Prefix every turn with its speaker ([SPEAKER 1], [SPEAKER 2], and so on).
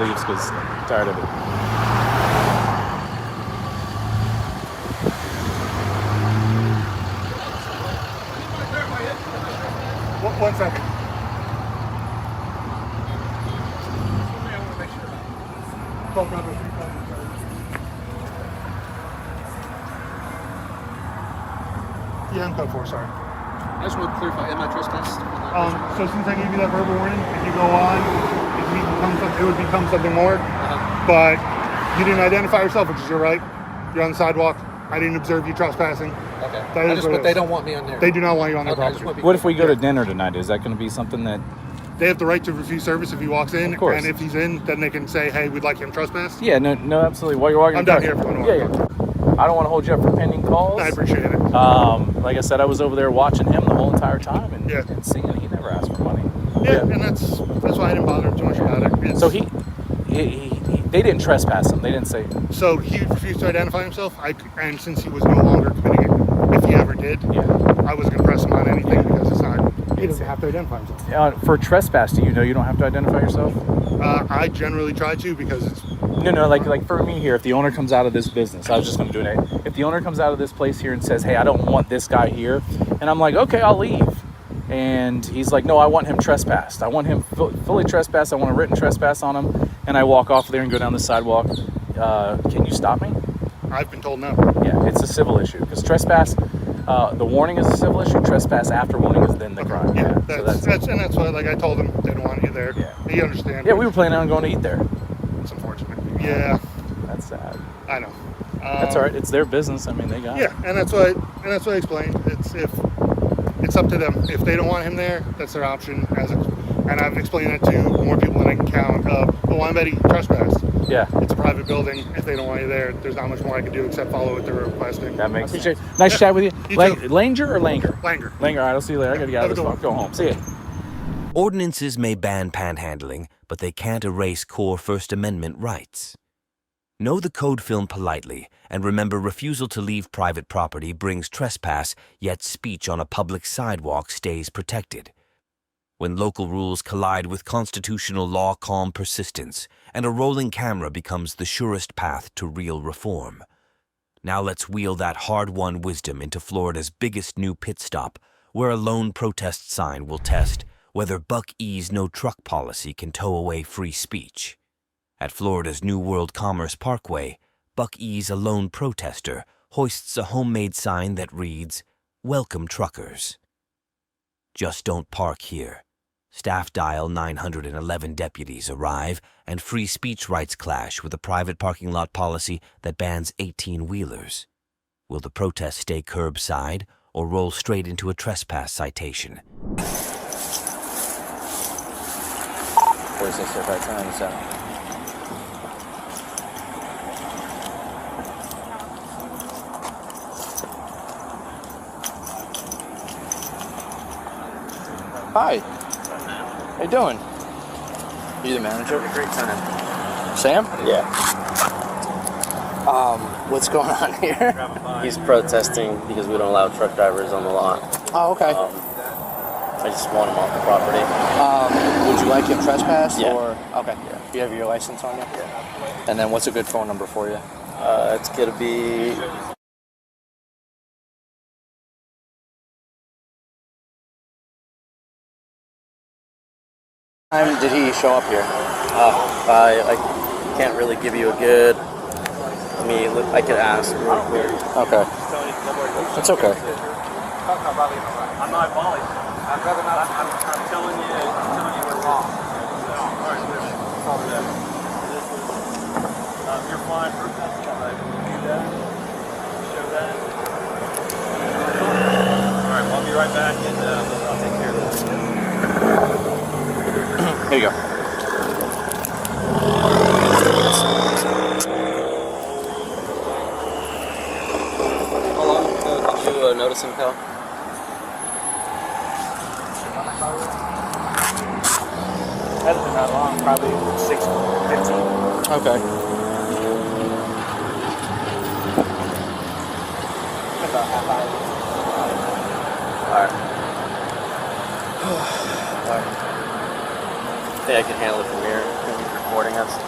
[SPEAKER 1] leaves because I'm tired of it.
[SPEAKER 2] One, one second. Call Robert. Yeah, I'm code four, sorry.
[SPEAKER 3] I just want to clarify, am I trespassed?
[SPEAKER 2] Um, so since I gave you that verbal warning, if you go on, it would become something, it would become something more.
[SPEAKER 3] Uh-huh.
[SPEAKER 2] But you didn't identify yourself, which is your right. You're on the sidewalk. I didn't observe you trespassing.
[SPEAKER 3] okay.
[SPEAKER 2] that
[SPEAKER 3] I
[SPEAKER 2] is
[SPEAKER 3] just,
[SPEAKER 2] what it
[SPEAKER 3] but they
[SPEAKER 2] is.
[SPEAKER 3] don't want me on there.
[SPEAKER 2] They do not want you on their
[SPEAKER 3] Okay, I just
[SPEAKER 2] property.
[SPEAKER 3] want to be
[SPEAKER 1] What if we go to dinner tonight? Is that going to be something that?
[SPEAKER 2] They have the right to refuse service if he walks in.
[SPEAKER 1] Of course.
[SPEAKER 2] And if he's in, then they can say, hey, we'd like him trespassed.
[SPEAKER 1] Yeah, no, no, absolutely. While you're walking,
[SPEAKER 2] I'm down
[SPEAKER 1] the car-
[SPEAKER 2] here if you wanna
[SPEAKER 1] Yeah, yeah. I don't want to hold you up for pending calls.
[SPEAKER 2] I appreciate it.
[SPEAKER 1] Um, like I said, I was over there watching him the whole entire time and,
[SPEAKER 2] Yeah.
[SPEAKER 1] and seeing he never asked for money.
[SPEAKER 2] Yeah, and that's that's why I didn't bother him too much about it. It's-
[SPEAKER 1] So he, he, he, he, they didn't trespass him. They didn't say,
[SPEAKER 2] so he refused to identify himself. I c- and since he was no longer committing it, if he ever did,
[SPEAKER 1] yeah.
[SPEAKER 2] I wasn't gonna press him on anything because it's not. He doesn't have to identify himself.
[SPEAKER 1] Uh, for trespass, do you know you don't have to identify yourself?
[SPEAKER 2] Uh, I generally try to because it's
[SPEAKER 1] No, no, like like for me here, if the owner comes out of this business, I was just gonna do it. If the owner comes out of this place here and says, "Hey, I don't want this guy here," and I'm like, "Okay, I'll leave," and he's like, "No, I want him trespassed. I want him fu- fully trespassed. I want a written trespass on him," and I walk off there and go down the sidewalk. Uh, can you stop me?
[SPEAKER 2] I've been told no.
[SPEAKER 1] Yeah, it's a civil issue because trespass. Uh, the warning is a civil issue. Trespass after warning is then the crime.
[SPEAKER 2] Yeah,
[SPEAKER 1] so
[SPEAKER 2] that's, that's, and that's why like I told him they don't want you there.
[SPEAKER 1] Yeah.
[SPEAKER 2] He understands.
[SPEAKER 1] yeah. We were planning on going to eat there.
[SPEAKER 2] It's unfortunate. Yeah,
[SPEAKER 1] That's sad.
[SPEAKER 2] I know. Um,
[SPEAKER 1] That's all right. It's their business. I mean, they got. it.
[SPEAKER 2] Yeah, and that's why and that's why I explained. It's if it's up to them. If they don't want him there, that's their option. As ex- and I've explained that to more people than I can count. Of oh, I'm betting trespass.
[SPEAKER 1] Yeah.
[SPEAKER 2] It's a private building. If they don't want you there, there's not much more I can do except follow what they're requesting.
[SPEAKER 1] That makes sense. Nice chat with you.
[SPEAKER 2] You
[SPEAKER 1] Lang-
[SPEAKER 2] too.
[SPEAKER 1] Langer or Langer?
[SPEAKER 2] Langer.
[SPEAKER 1] Langer, all right, I'll see you later. I gotta get out of
[SPEAKER 2] Have a
[SPEAKER 1] this
[SPEAKER 2] good
[SPEAKER 1] one. Go home. See ya.
[SPEAKER 4] Ordinances may ban panhandling, but they can't erase core First Amendment rights. Know the code film politely, and remember refusal to leave private property brings trespass, yet speech on a public sidewalk stays protected. When local rules collide with constitutional law, calm persistence, and a rolling camera becomes the surest path to real reform. Now let's wheel that hard won wisdom into Florida's biggest new pit stop, where a lone protest sign will test whether Buck E's no truck policy can tow away free speech. At Florida's New World Commerce Parkway, Buck E's a lone protester hoists a homemade sign that reads, Welcome Truckers. Just don't park here. Staff dial 911 deputies arrive, and free speech rights clash with a private parking lot policy that bans 18 wheelers. Will the protest stay curbside or roll straight into a trespass citation?
[SPEAKER 1] Where's this at that time? It's out. Hi. How you doing?
[SPEAKER 5] You the manager? Had a great time.
[SPEAKER 1] Sam?
[SPEAKER 5] Yeah.
[SPEAKER 1] What's going on here?
[SPEAKER 5] He's protesting because we don't allow truck drivers on the lot.
[SPEAKER 1] Oh, okay.
[SPEAKER 5] Um, I just want him off the property.
[SPEAKER 1] Would you like him trespassed
[SPEAKER 5] Yeah.
[SPEAKER 1] okay. You have your license on you? Yeah. And then what's a good phone number for you?
[SPEAKER 5] Uh, it's gonna be
[SPEAKER 1] Time did he show up here?
[SPEAKER 5] Uh, I I can't really give you a good. I mean, look, I could ask. real quick.
[SPEAKER 1] Okay. It's okay.
[SPEAKER 6] I'm not volley. I'd rather not. I'm, I'm telling you, I'm telling you we're wrong. So, all right, it's all good. This is, um, you're flying for that. Like, do that. Show that. All right, well, I'll be right back and uh, I'll take care of that.
[SPEAKER 1] Here you go.
[SPEAKER 5] How long ago did you uh, notice him, Cal?
[SPEAKER 6] Hasn't been that long, probably six, fifteen.
[SPEAKER 1] Okay.
[SPEAKER 6] About half hour.
[SPEAKER 5] I think I can handle it from here. He's recording us.